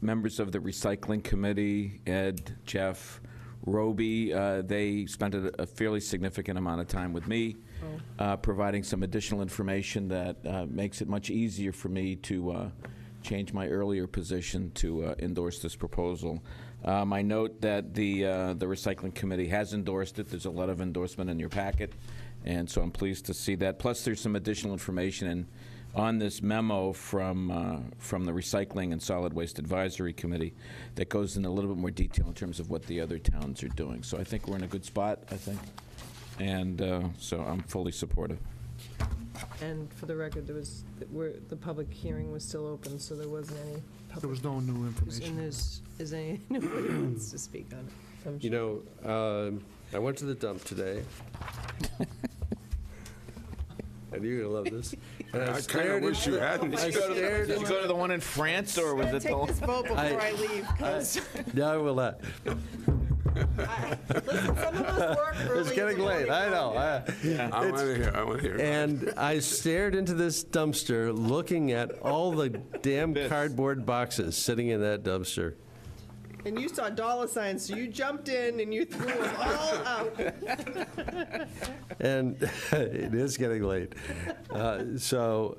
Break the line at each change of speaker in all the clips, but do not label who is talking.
members of the recycling committee, Ed, Jeff, Roby, uh, they spent a a fairly significant amount of time with me, uh, providing some additional information that uh, makes it much easier for me to uh, change my earlier position to uh, endorse this proposal. Um, I note that the, uh, the recycling committee has endorsed it. There's a lot of endorsement in your packet, and so I'm pleased to see that. Plus, there's some additional information in, on this memo from, uh, from the Recycling and Solid Waste Advisory Committee that goes in a little bit more detail in terms of what the other towns are doing. So I think we're in a good spot, I think, and uh, so I'm fully supportive.
And for the record, there was, where, the public hearing was still open, so there wasn't any
There
public,
was no new
and
information.
there's, is any, nobody wants to speak on it. I'm
You know, um, I went to the dump today. And you're gonna love this. And
I kind of
stared
wish
into
you
the-
hadn't.
I stared
Did you
into-
go to the one in France, or was it the?
Take this vote before
I-
I leave, because
No, I will not.
listen, some of us work early.
It's
in
getting
the
late,
morning.
I know. I-
I want to hear, I want to hear.
And I stared into this dumpster, looking at all the damn cardboard boxes sitting in that dumpster.
And you saw dollar signs, so you jumped in and you threw them all out.
And it is getting late. Uh, So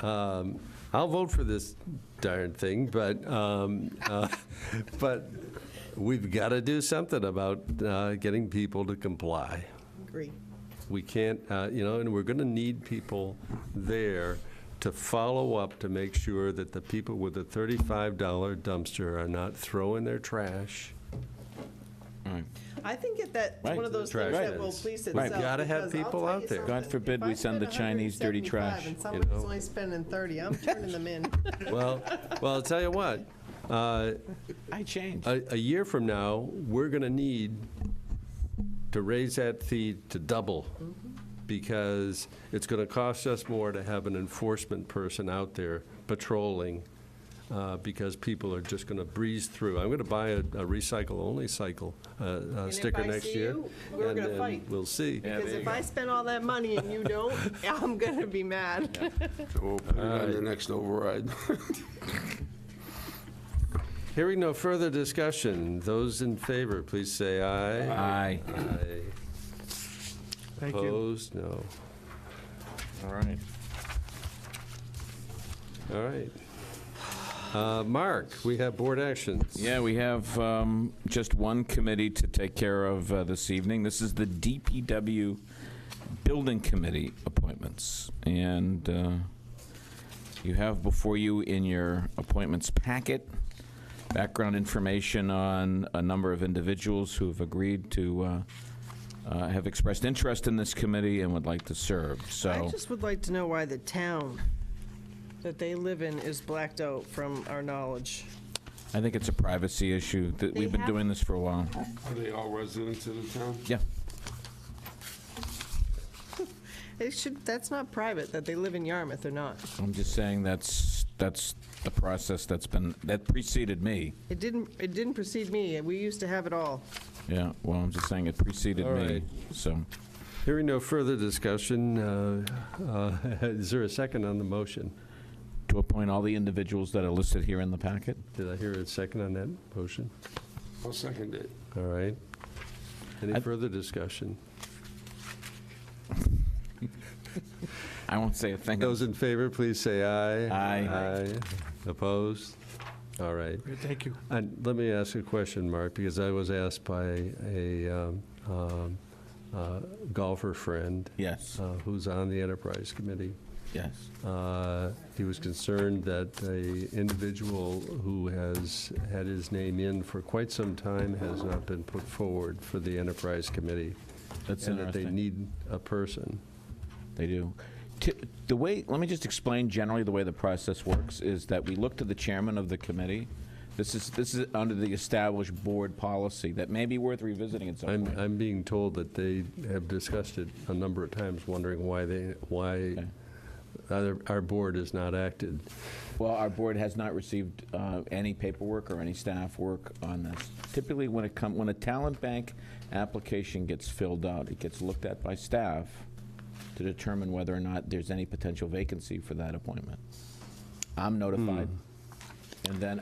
um, I'll vote for this darn thing, but, um, uh, but we've got to do something about uh, getting people to comply.
Agree.
We can't, uh, you know, and we're going to need people there to follow up to make sure that the people with the $35 dumpster are not throwing their trash.
I think that that's
Right.
one of those
Trash
things that
cans.
will police
Right.
itself.
Gotta have
because I'll
people
tell
out
you
there.
God
something,
forbid
if
we
I
send the
spend
Chinese dirty
175
trash,
And
you
somebody's
know?
only spending 30, I'm turning them in.
Well, well, I'll tell you what, uh,
I changed.
a, a year from now, we're going to need to raise that fee to double
Mm-hmm.
because it's going to cost us more to have an enforcement person out there patrolling uh, because people are just going to breeze through. I'm going to buy a, a recycle-only cycle uh, uh,
if
sticker
I
next
see
year.
you, we're
and-
gonna
and
fight.
We'll see.
Because if I spend all that money and you don't, I'm gonna be mad.
We'll put it on the next override.
Hearing no further discussion, those in favor, please say aye.
Aye.
Aye.
Thank you.
Opposed? No.
All right.
All right. Uh, Mark, we have board actions.
Yeah, we have um, just one committee to take care of uh, this evening. This is the DPW Building Committee appointments. And uh, you have before you in your appointments packet background information on a number of individuals who have agreed to, uh, uh, have expressed interest in this committee and would like to serve.
I
So,
just would like to know why the town that they live in is blacked out from our knowledge.
I think it's a privacy issue. that
They
We've been
have-
doing this for a while.
Are they all residents of the town?
Yeah.
It should, that's not private, that they live in Yarmouth or not.
I'm just saying that's, that's the process that's been, that preceded me.
It didn't, it didn't precede me, we used to have it all.
Yeah, well, I'm just saying it preceded
All
me,
right.
so.
Hearing no further discussion, uh, uh, is there a second on the motion?
To appoint all the individuals that are listed here in the packet?
Did I hear a second on that motion?
I'll second it.
All right. Any
I-
further discussion?
I won't say a thing.
Those in favor, please say aye.
Aye.
Aye. Opposed? All right.
Great, Thank you.
And let me ask a question, Mark, because I was asked by a um, um, uh, golfer friend
Yes,
uh, who's on the Enterprise Committee.
yes.
Uh, He was concerned that a individual who has had his name in for quite some time has not been put forward for the Enterprise Committee.
That's
And that they
interesting.
need a person.
They do. Ti- The way, let me just explain generally the way the process works, is that we look to the chairman of the committee. This is, this is under the established board policy that may be worth revisiting at some
I'm,
point.
I'm being told that they have discussed it a number of times, wondering why they, why other- our board has not acted.
Well, our board has not received uh, any paperwork or any staff work on this. Typically, when it come, when a talent bank application gets filled out, it gets looked at by staff to determine whether or not there's any potential vacancy for that appointment. I'm notified. And then